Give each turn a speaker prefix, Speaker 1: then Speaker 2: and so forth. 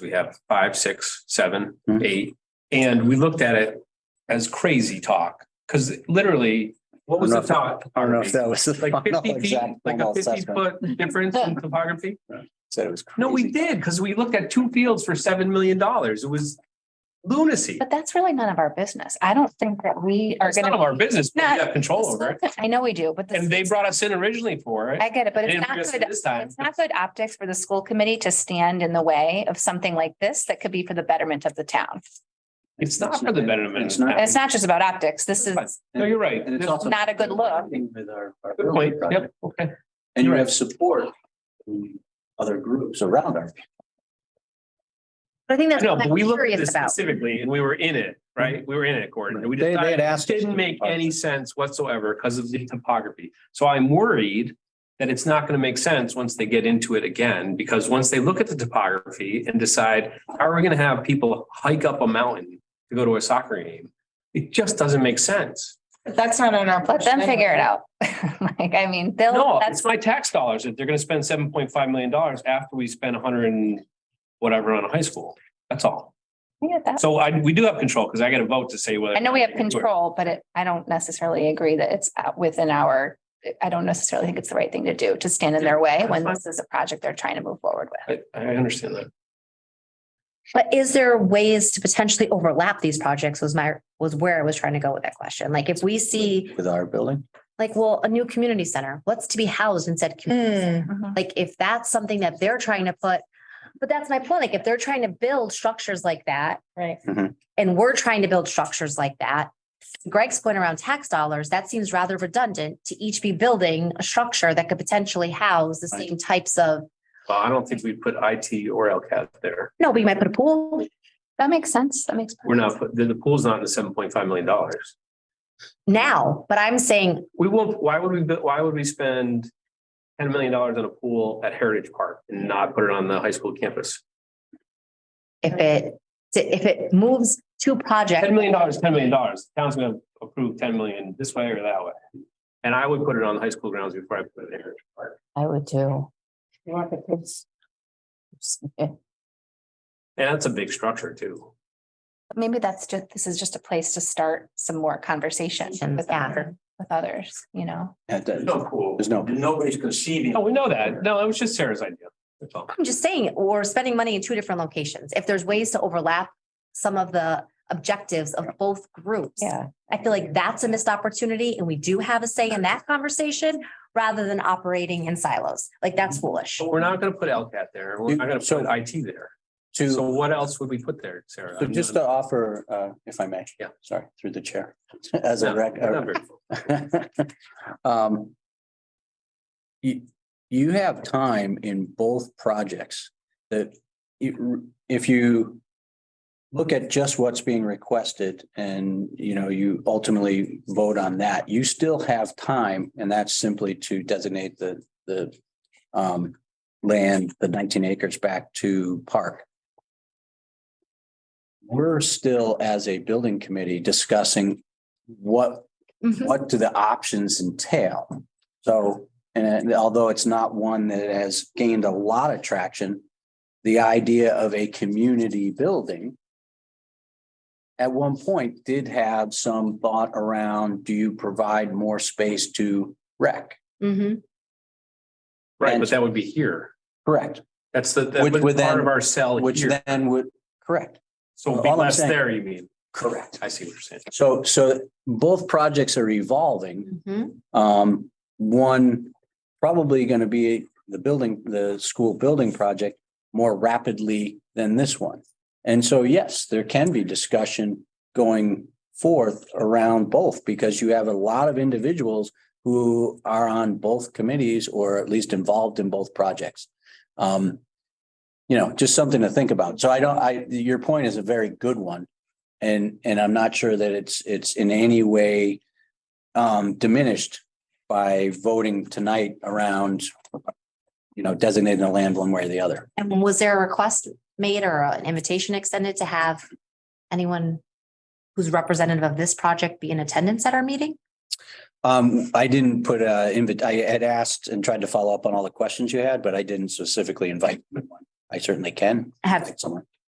Speaker 1: We have five, six, seven,
Speaker 2: Mhm.
Speaker 1: eight, and we looked at it as crazy talk, because literally, what was the
Speaker 2: Enough.
Speaker 1: talk?
Speaker 2: I don't know if that was. the
Speaker 1: Like
Speaker 2: final
Speaker 1: fifty feet,
Speaker 2: exact
Speaker 1: like
Speaker 2: formal
Speaker 1: a fifty
Speaker 2: assessment.
Speaker 1: foot difference in topography?
Speaker 2: Said it was.
Speaker 1: No, we
Speaker 2: crazy.
Speaker 1: did, because we looked at two fields for seven million dollars. It was lunacy.
Speaker 3: But that's really none of our business. I don't think that we are
Speaker 1: It's none
Speaker 3: gonna.
Speaker 1: of our business, but we
Speaker 3: Not-
Speaker 1: have control over it.
Speaker 3: I know we do, but. the-
Speaker 1: And they brought us in originally for it.
Speaker 3: I get it, but
Speaker 1: They
Speaker 3: it's
Speaker 1: didn't
Speaker 3: not
Speaker 1: bring us in
Speaker 3: good.
Speaker 1: This time.
Speaker 3: It's not good optics for the school committee to stand in the way of something like this that could be for the betterment of the town.
Speaker 1: It's not for the betterment.
Speaker 2: It's not.
Speaker 3: And It's not just about optics. This is,
Speaker 1: No, you're right.
Speaker 4: And it's
Speaker 1: There's-
Speaker 4: also.
Speaker 3: not a good look.
Speaker 4: With our. our
Speaker 1: Good point.
Speaker 4: building project.
Speaker 1: Yep, okay.
Speaker 4: And you
Speaker 1: You're
Speaker 4: have support from other groups around our.
Speaker 3: I think that's
Speaker 1: No,
Speaker 3: what
Speaker 1: but we
Speaker 3: I'm
Speaker 1: looked at this
Speaker 3: curious about. Mm-hmm.
Speaker 1: specifically and we were in it, right? We were in it, Gordon. and we
Speaker 2: They, they
Speaker 1: decided
Speaker 2: had asked. us
Speaker 1: Didn't
Speaker 2: to-
Speaker 1: make any sense whatsoever because of the topography. So I'm worried that it's not going to make sense once they get into it again, because once they look at the topography and decide, how are we going to have people hike up a mountain to go to a soccer game? It just doesn't make sense.
Speaker 5: That's not on our.
Speaker 3: Let them
Speaker 5: budget
Speaker 3: figure
Speaker 5: anyway.
Speaker 3: it out. Like, I mean, they'll,
Speaker 1: No,
Speaker 3: that's
Speaker 1: it's my tax dollars that they're going to spend seven point five million dollars after we spend a hundred and whatever on a high school. That's all.
Speaker 3: Yeah, that's,
Speaker 1: So I, we do have control because I got a vote to say whether.
Speaker 3: I know we have
Speaker 1: Do it.
Speaker 3: control, but it, I don't necessarily agree that it's out within our, I don't necessarily think it's the right thing to do to stand in their way when this is a project they're trying to move forward with.
Speaker 1: I, I understand that.
Speaker 6: But is there ways to potentially overlap these projects was my, was where I was trying to go with that question. Like if we see,
Speaker 4: With our building.
Speaker 6: like, well, a new community center, what's to be housed in said, commu-
Speaker 5: Hmm.
Speaker 3: Mm-hmm.
Speaker 6: like, if that's something that they're trying to put. But that's my point. Like, if they're trying to build structures like that.
Speaker 5: Right.
Speaker 2: Mhm.
Speaker 6: And we're trying to build structures like that. Greg's point around tax dollars, that seems rather redundant to each be building a structure that could potentially house the
Speaker 4: Right.
Speaker 6: same types of,
Speaker 1: Well, I don't think we put IT or LCAT there.
Speaker 6: no, but you might put a pool,
Speaker 3: That makes sense. That makes.
Speaker 1: We're not, put- the, the pool's not in the seven point five million dollars.
Speaker 6: now, but I'm saying
Speaker 1: We won't, why would we, bu- why would we spend ten million dollars on a pool at Heritage Park and not put it on the high school campus?
Speaker 6: if it, if it moves to project,
Speaker 1: Ten million dollars, ten million dollars. Town's gonna approve ten million this way or that way. And I would put it on the high school grounds before I put it in Heritage Park.
Speaker 5: I would too. You want the kids.
Speaker 1: And that's a big structure too.
Speaker 3: Maybe that's just, this is just a place to start some more conversation with
Speaker 6: Yeah.
Speaker 3: other, with others, you know?
Speaker 4: at that-
Speaker 1: pool.
Speaker 4: There's no, nobody's conceiving.
Speaker 1: No, we know that. No, it was just Sarah's idea. That's all.
Speaker 6: I'm just saying, we're spending money in two different locations. If there's ways to overlap some of the objectives of both groups.
Speaker 5: Yeah.
Speaker 6: I feel like that's a missed opportunity and we do have a say in that conversation rather than operating in silos. Like that's foolish.
Speaker 1: But we're not gonna put LCAT there. We're not gonna
Speaker 4: So-
Speaker 1: put IT there.
Speaker 4: To,
Speaker 1: So
Speaker 4: so
Speaker 1: what else would we put there, Sarah? I'm
Speaker 4: just
Speaker 1: not-
Speaker 4: to offer, uh, if I may.
Speaker 1: Yeah.
Speaker 4: Sorry, through the chair, as a
Speaker 1: not-
Speaker 4: rec.
Speaker 1: not very-
Speaker 4: Um. You, you have time in both projects that you- if you. Look at just what's being requested and, you know, you ultimately vote on that, you still have time and that's simply to designate the, the. Um, land, the nineteen acres back to park. We're still, as a building committee, discussing what
Speaker 6: Mm-hmm.
Speaker 4: what do the options entail? So, and although it's not one that has gained a lot of traction, the idea of a community building at one point did have some thought around, do you provide more space to rec?
Speaker 6: Mhm.
Speaker 1: Right, but that would be here.
Speaker 4: Correct,
Speaker 1: That's the, that
Speaker 4: Which
Speaker 1: was
Speaker 4: would
Speaker 1: part
Speaker 4: then-
Speaker 1: of our cell
Speaker 4: which
Speaker 1: here.
Speaker 4: then would, correct,
Speaker 1: So it'd be
Speaker 4: all I'm
Speaker 1: less
Speaker 4: saying-
Speaker 1: there, you mean?
Speaker 4: correct.
Speaker 1: I see what you're saying.
Speaker 4: So, so both projects are evolving.
Speaker 6: Mhm.
Speaker 4: Um, one, probably gonna be the building, the school building project more rapidly than this one. And so, yes, there can be discussion going forth around both because you have a lot of individuals who are on both committees or at least involved in both projects. Um, you know, just something to think about. So I don't, I, your point is a very good one. And, and I'm not sure that it's, it's in any way um, diminished by voting tonight around, you know, designating the land one way or the other.
Speaker 6: And was there a request made or an invitation extended to have anyone who's representative of this project be in attendance at our meeting?
Speaker 4: Um, I didn't put a invite, I had asked and tried to follow up on all the questions you had, but I didn't specifically invite. anyone. I certainly can.
Speaker 6: I have
Speaker 4: find Someone.